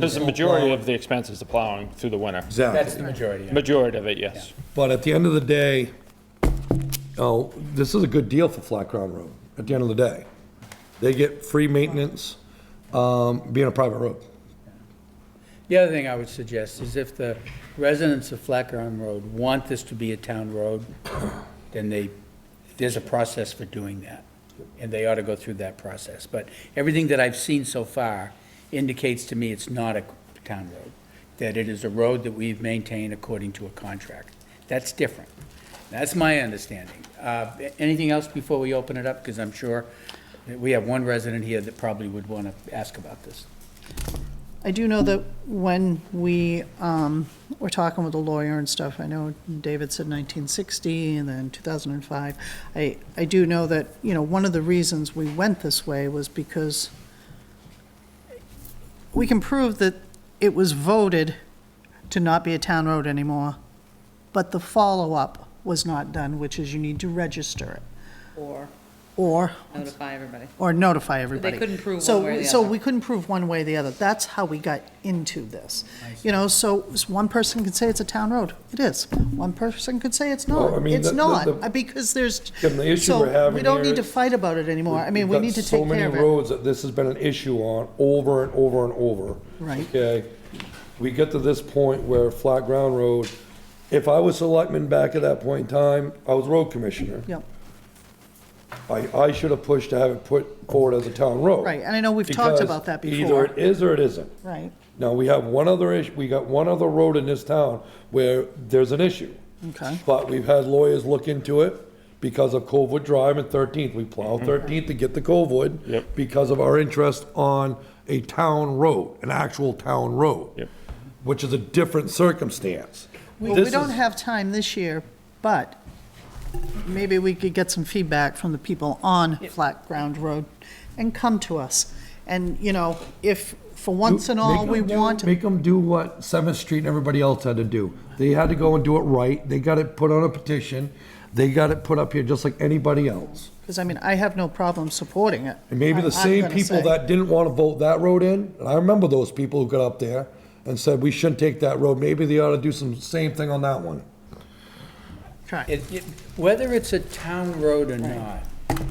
Because the majority of the expense is the plowing through the winter. Exactly. That's the majority. yeah. Majority of it, yes. But at the end of the day, oh, this is a good deal for Flat Ground Road, at the end of the day. They get free maintenance, um, being a private road. The other thing I would suggest is if the residents of Flat Ground Road want this to be a town road, then they, there's a process for doing that, and they ought to go through that process. But everything that I've seen so far indicates to me it's not a town road, that it is a road that we've maintained according to a contract. That's different. That's my understanding. Uh, Anything else before we open it up? Because I'm sure that we have one resident here that probably would want to ask about this. I do know that when we um, were talking with the lawyer and stuff, I know David said 1960 and then 2005. I, I do know that, you know, one of the reasons we went this way was because we can prove that it was voted to not be a town road anymore, but the follow-up was not done, which is you need to register it or or, notify everybody. or notify everybody. couldn't prove So- one way or the So other. we couldn't prove one way or the other. That's how we got into this. You know, so s- one person could say it's a town road. It is. One person could say it's Well, I not. mean, It's the- the- not, the- uh, because there's. Jim, the issue so we're having We don't here need to is- fight about it anymore. I mean, we need to take care of So many it. roads that this has been an issue on over and over and over. Right. Okay? We get to this point where Flat Ground Road, if I was selectman back at that point in time, I was road commissioner. Yep, I, I should have pushed to have it put forward as a town road. Right, and I know we've talked Because about that Either before. it is or it isn't. right. Now, we have one other issue, we got one other road in this town where there's an issue. Okay. But we've had lawyers look into it because of Covewood Drive and Thirteenth. We plow Thirteenth to get to Covewood. Mm-hmm. Yep. Because of our interest on a town road, an actual town road. Yep. Which is a different circumstance. Well, we This don't is- have time this year, but maybe we could get some feedback from the people on Flat Ground Road and come to us. And, you know, if for once and all Make we 'em do- want. Make them do what Seventh Street and everybody else had to do. They had to go and do it right. They got it put on a petition. They got it put up here just like anybody else. Because, I mean, I have no problem supporting it. And maybe I'm- the I'm same gonna people say. that didn't want to vote that road in, and I remember those people who got up there and said, we shouldn't take that road. Maybe they ought to do some same thing on that one. Correct. It- it- Whether it's a town road or not,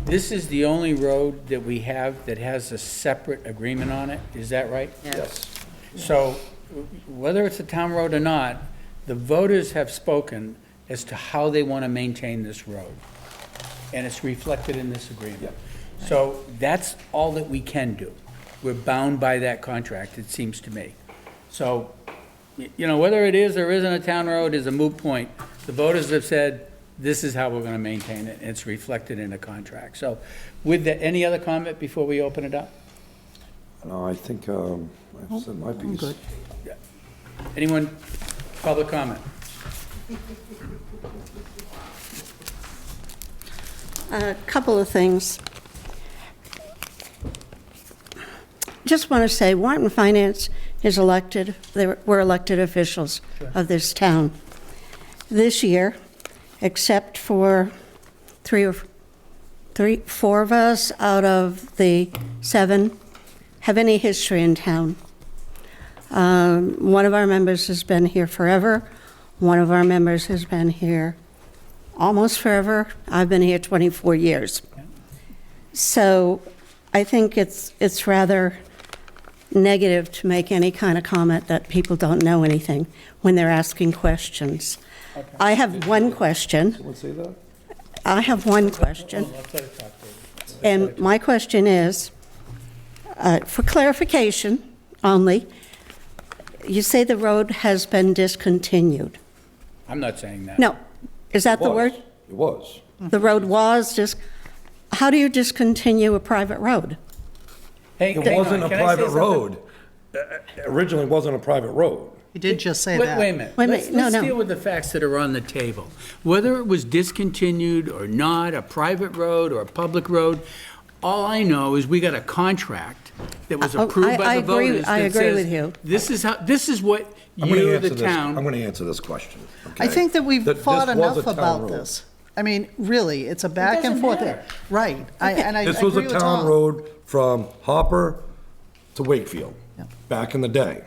this is the only road that we have that has a separate agreement on it, is that right? Yes. So whether it's a town road or not, the voters have spoken as to how they want to maintain this road. And it's reflected in this agreement. So that's all that we can do. We're bound by that contract, it seems to me. So, y- you know, whether it is or isn't a town road is a moot point. The voters have said, this is how we're going to maintain it, and it's reflected in the contract. So with that, any other comment before we open it up? No, I think, um, I said my I'm good. piece. Anyone, public comment? A couple of things. Just want to say, Warren Finance is elected, they were- we're elected officials of this town. This year, except for three or, three, four of us out of the seven have any history in town. Um, One of our members has been here forever. One of our members has been here almost forever. I've been here 24 years. So I think it's, it's rather negative to make any kind of comment that people don't know anything when they're asking questions. I have one question. Someone say that? I have one question. And my question is, uh, for clarification only, you say the road has been discontinued. I'm not saying that. No, is that the Was. word? It was. The road was just, how do you discontinue a private road? Hey, It hang on, wasn't a can I say private something? road. Uh, Originally, it wasn't a private road. You did just say Wait, that. wait a minute. Wait a Let's, minute, no, let's no. deal with the facts that are on the table. Whether it was discontinued or not, a private road or a public road, all I know is we got a contract that was Oh, I- approved I by the agree- voters I that agree says, with you. This is how, this is what I'm gonna you, answer the this- town. I'm gonna answer this question. I okay? think that we've That this fought was a enough town about road. this. I mean, really, it's a back and doesn't forth. matter. Right, I- and I I This was agree a with town Tom. road from Hopper to Wakefield, Yeah. back in the day.